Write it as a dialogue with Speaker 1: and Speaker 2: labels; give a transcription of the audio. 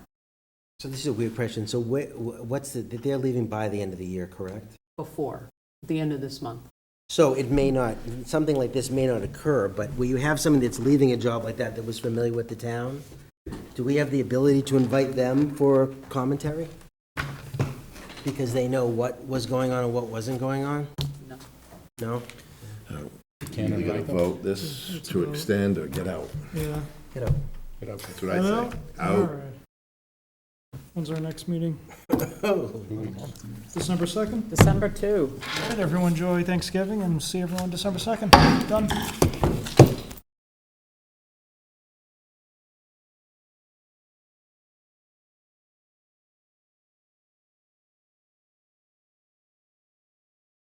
Speaker 1: So this is a weird question. So where, wh- what's the, they're leaving by the end of the year, correct?
Speaker 2: before, the end of this month.
Speaker 1: So it may not, something like this may not occur, but will you have someone that's leaving a job like that that was familiar with the town? Do we have the ability to invite them for commentary? Because they know what was going on and what wasn't going on?
Speaker 2: No.
Speaker 1: No?
Speaker 3: Can't
Speaker 4: Either
Speaker 3: invite them.
Speaker 4: vote this to extend or get out.
Speaker 3: Yeah.
Speaker 1: You know,
Speaker 3: Get out.
Speaker 4: That's what I say.
Speaker 3: All
Speaker 4: Out.
Speaker 3: right. When's our next meeting?
Speaker 4: Oh,
Speaker 3: December 2nd?
Speaker 2: December 2.
Speaker 3: All right, everyone enjoy Thanksgiving and see everyone December 2nd. Done.